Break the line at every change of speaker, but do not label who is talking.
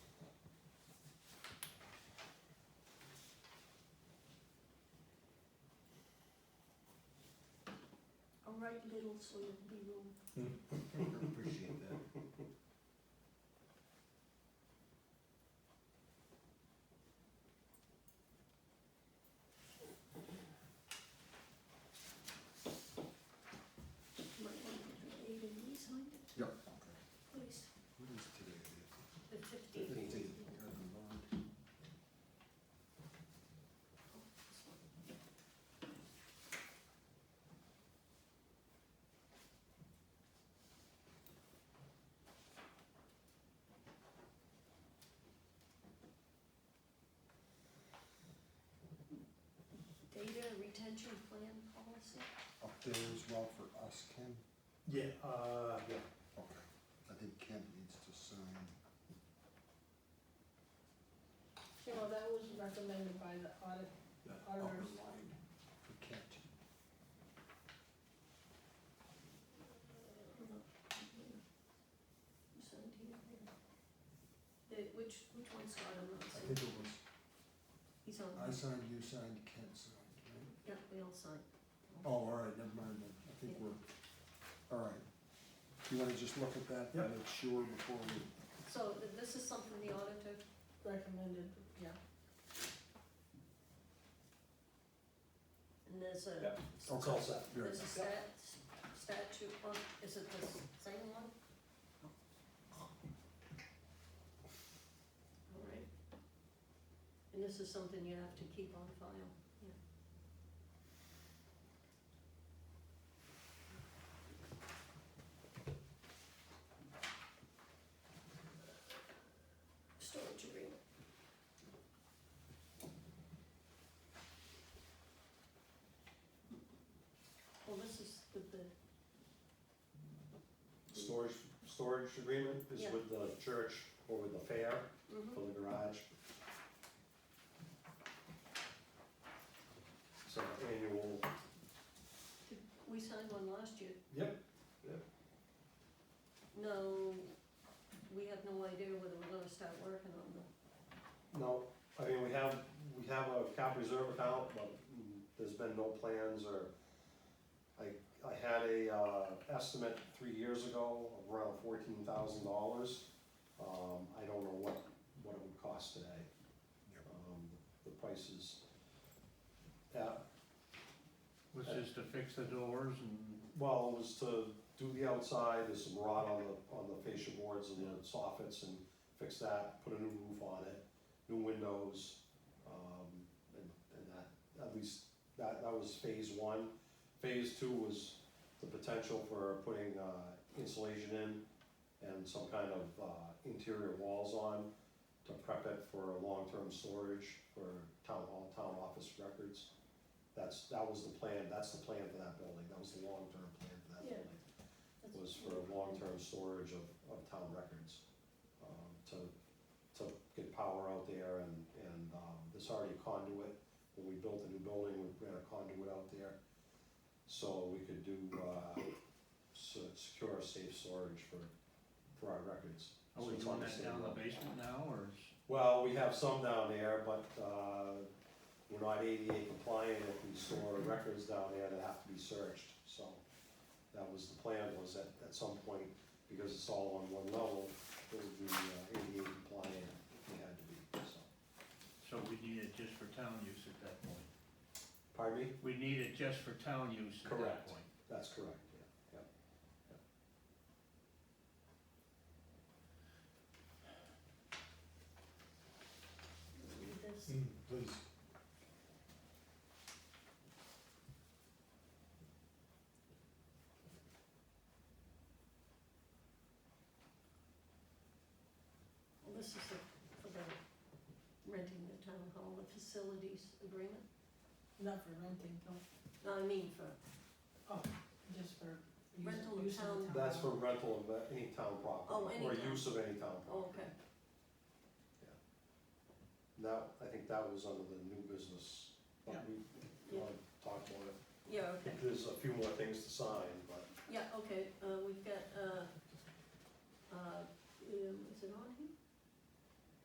right middle so there'd be room.
Appreciate that.
You Might want to put eight of these on it,
Yep.
please.
What is today? The
The fifteenth.
Fifteenth. God, the Lord.
Data retention plan policy.
Up there as well for us, Ken?
Yeah, uh, yeah.
Okay. I think Ken needs to sign.
Yeah, well, that was recommended by the audit,
that upper
Ours.
line For Kent.
Seventeen here. The, which, which one's got on
I
those?
think it was,
He's on,
I signed, you signed, Kent signed, right?
yeah, we all signed.
Oh, all right, never mind then. I think we're, all right. You wanna just look at that? and
Yep.
Make sure before we,
So th- this is something the auditor,
recommended, yeah.
and there's a,
Yeah. It's all set.
very
there's a stat, statute, on is it the s- same one? All right. And this is something you have to keep on file, yeah. Storage agreement. Well, this is with the,
Storage, storage agreement is
Yeah.
with the church or with the fair
mhm.
for the garage. So annual,
we signed one last year.
Yep, yep.
No, we have no idea whether we're gonna start working on them.
no, I mean, we have, we have a cap reserve account, but mm, there's been no plans or, I, I had a, uh, estimate three years ago of around fourteen thousand dollars. Um, I don't know what, what it would cost today.
Yep.
Um, the prices, at
Was just to fix the doors and,
Well, it was to do the outside, there's some rot on the, on the fascia boards and the soffits and fix that, put a new roof on it, new windows, um, and, and that, at least, that, that was phase one. Phase two was the potential for putting, uh, insulation in and some kind of, uh, interior walls on to prep it for long-term storage for town hall, town office records. That's, that was the plan, that's the plan for that building, that was the long-term plan for that
Yeah.
building
That's-
was for long-term storage of, of town records, um, to, to get power out there and, and, um, there's already a conduit. When we built the new building, we ran a conduit out there, so we could do, uh, se- secure, safe storage for, for our records.
are we
So it's on
doing
the
that
same
down
level.
the basement now, or is,
Well, we have some down there, but, uh, we're not ADA compliant if we store records down there that have to be searched, so. That was the plan, was that at some point, because it's all on one level, it would be uh, ADA compliant if we had to be, so.
so we need it just for town use at that point?
Pardon me?
We need it just for town use at
Correct.
that point?
That's correct, yeah, yeah.
Read this.
Mm, Please.
Well, This is the- for the renting the town hall, the facilities agreement.
Not for renting, no,
No, I mean for,
just for use-
Rental of
use of the
town.
town.
That's for rental of uh, any town
Oh,
property,
any
or
town.
use of any town
oh,
property.
okay.
That, I think that was under the new business, but we,
Yeah.
want to talk about it.
Yeah, okay.
There's a few more things to sign, but
Yeah, okay, uh, we've got, uh, uh, um, is it on